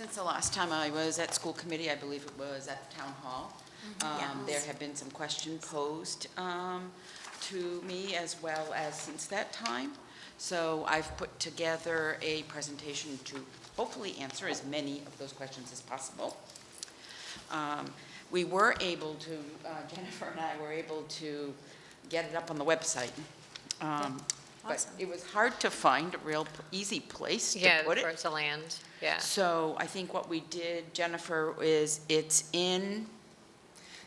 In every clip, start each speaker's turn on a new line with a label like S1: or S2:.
S1: was the last time I was at school committee, I believe it was at town hall. Um, There have been some questions posed um, to me as well as since that time. So I've put together a presentation to hopefully answer as many of those questions as possible. Um, We were able to, uh, Jennifer and I were able to get it up on the website. Um, But
S2: Awesome.
S1: it was hard to find a real easy place to
S3: Yeah,
S1: put
S3: for
S1: it.
S3: it to land, yeah.
S1: So I think what we did, Jennifer, is it's in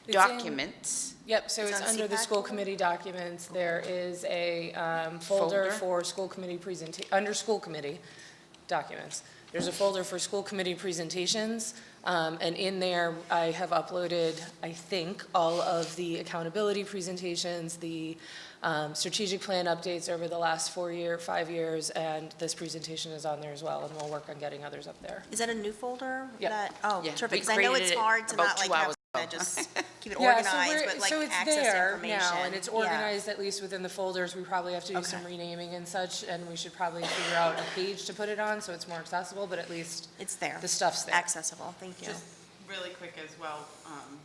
S4: in-
S1: documents.
S4: Yep, so
S2: It's
S4: it's
S2: on
S4: under the
S2: CPAC?
S4: school committee documents. There is a um, folder
S1: Folder.
S4: for school committee presenta, under school committee documents. There's a folder for school committee presentations, um, and in there, I have uploaded, I think, all of the accountability presentations, the um, strategic plan updates over the last four year, five years, and this presentation is on there as well, and we'll work on getting others up there.
S2: Is that a new folder?
S4: Yeah.
S2: that- Oh,
S1: Yeah,
S2: terrific,
S1: we
S2: because I know
S1: created
S2: it's
S1: it
S2: hard to
S1: about
S2: not
S1: two
S2: like have,
S1: hours
S2: to
S1: ago.
S2: just keep it
S4: Yeah, so
S2: organized,
S4: we're-
S2: but
S4: so
S2: like
S4: it's
S2: access
S4: there
S2: information.
S4: now, and it's
S2: Yeah.
S4: organized at least within the folders. We probably have to do some
S2: Okay.
S4: renaming and such, and we should probably figure out a page to put it on so it's more accessible, but at least
S2: It's there.
S4: the stuff's there.
S2: Accessible, thank you.
S5: Just really quick as well, um,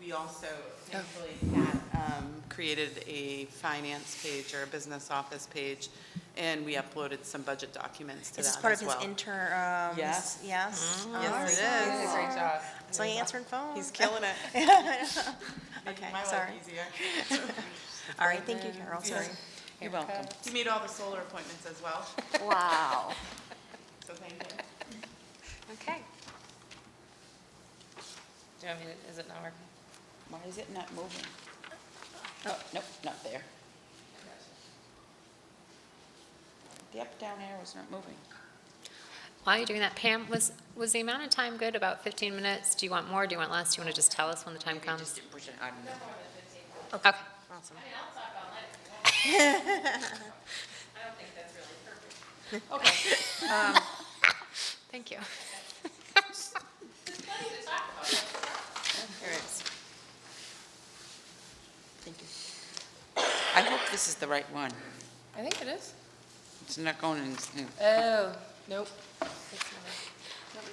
S5: we also,
S2: Oh.
S5: thankfully, Kat, um, created a finance page or a business office page, and we uploaded some budget documents to
S2: Is this
S5: that
S2: part of
S5: as
S2: his
S5: well.
S2: interim?
S1: Yes. Mm-hmm.
S2: Yes?
S5: Yes,
S2: Awesome.
S5: it is.
S4: Great job.
S2: So you answering phone?
S5: He's killing it. Making
S2: Okay,
S5: my life
S2: sorry.
S5: easier.
S2: All right, thank you, Carol, sorry.
S1: You're welcome.
S5: You made all the solar appointments as well,
S2: Wow.
S5: so thank you.
S3: Okay.
S4: Do you want me to, is it not working?
S1: Why is it not moving? Oh, nope, not there. The up-down arrow is not moving.
S3: While you're doing that, Pam, was, was the amount of time good, about 15 minutes? Do you want more, do you want less? Do you want to just tell us when the time
S1: Maybe I
S3: comes?
S1: just didn't push it hard enough.
S3: Okay,
S2: Awesome.
S1: Um,
S3: thank you.
S2: Here it is.
S1: I hope this is the right one.
S4: I think it is.
S1: It's not going in. this new-
S4: Oh, nope.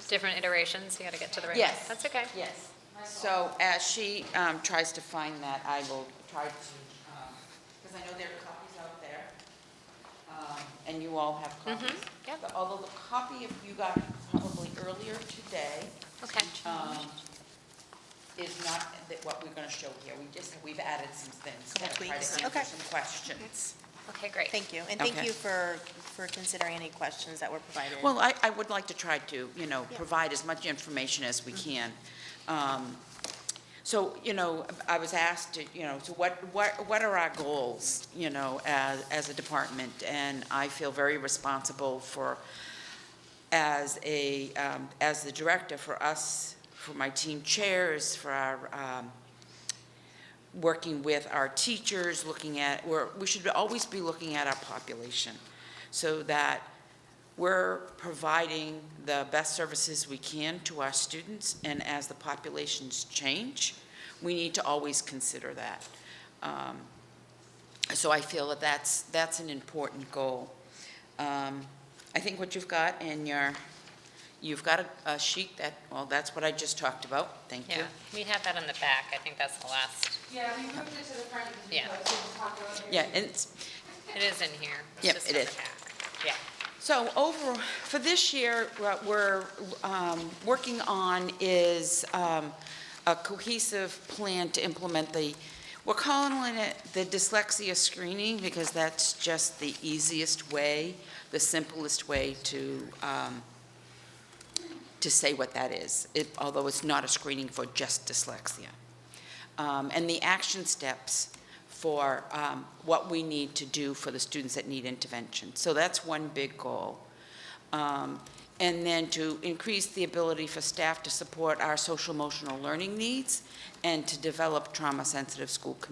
S3: Different iterations, you got to get to the right one.
S1: Yes.
S3: That's okay.
S1: Yes. So as she um, tries to find that, I will try to, because I know there are copies out there, um, and you all have copies.
S3: yep.
S1: But Although the copy of you got probably earlier today
S3: Okay.
S1: um, is not that what we're going to show here. We just, we've added some things.
S2: Couple
S1: to Try
S2: tweaks.
S1: to
S2: Okay.
S1: answer some questions.
S3: Okay, great.
S2: Thank you, and thank
S1: Okay.
S2: you for, for considering any questions that were provided.
S1: Well, I, I would like to try to, you know,
S2: Yeah.
S1: provide as much information as we can. Um, So, you know, I was asked, to, you know, so what, what, what are our goals, you know, as, as a department? And I feel very responsible for, as a, um, as the director, for us, for my team chairs, for our, um, working with our teachers, looking at, we're, we should always be looking at our population so that we're providing the best services we can to our students, and as the populations change, we need to always consider that. Um, So I feel that that's, that's an important goal. Um, I think what you've got in your, you've got a- a sheet that, well, that's what I just talked about, thank you.
S3: Yeah, we have that on the back, I think that's the last,
S6: Yeah, we moved it to the front because
S3: Yeah.
S6: we didn't talk about it.
S1: Yeah, and it's,
S3: it is in here. It's
S1: Yep,
S3: just
S1: it
S3: on
S1: is.
S3: the back. Yeah.
S1: So over, for this year, what we're um, working on is um, a cohesive plan to implement the, we're calling it the dyslexia screening because that's just the easiest way, the simplest way to, um, to say what that is, it- although it's not a screening for just dyslexia. Um, And the action steps for um, what we need to do for the students that need intervention. So that's one big goal. Um, And then to increase the ability for staff to support our social emotional learning needs and to develop trauma-sensitive school communities.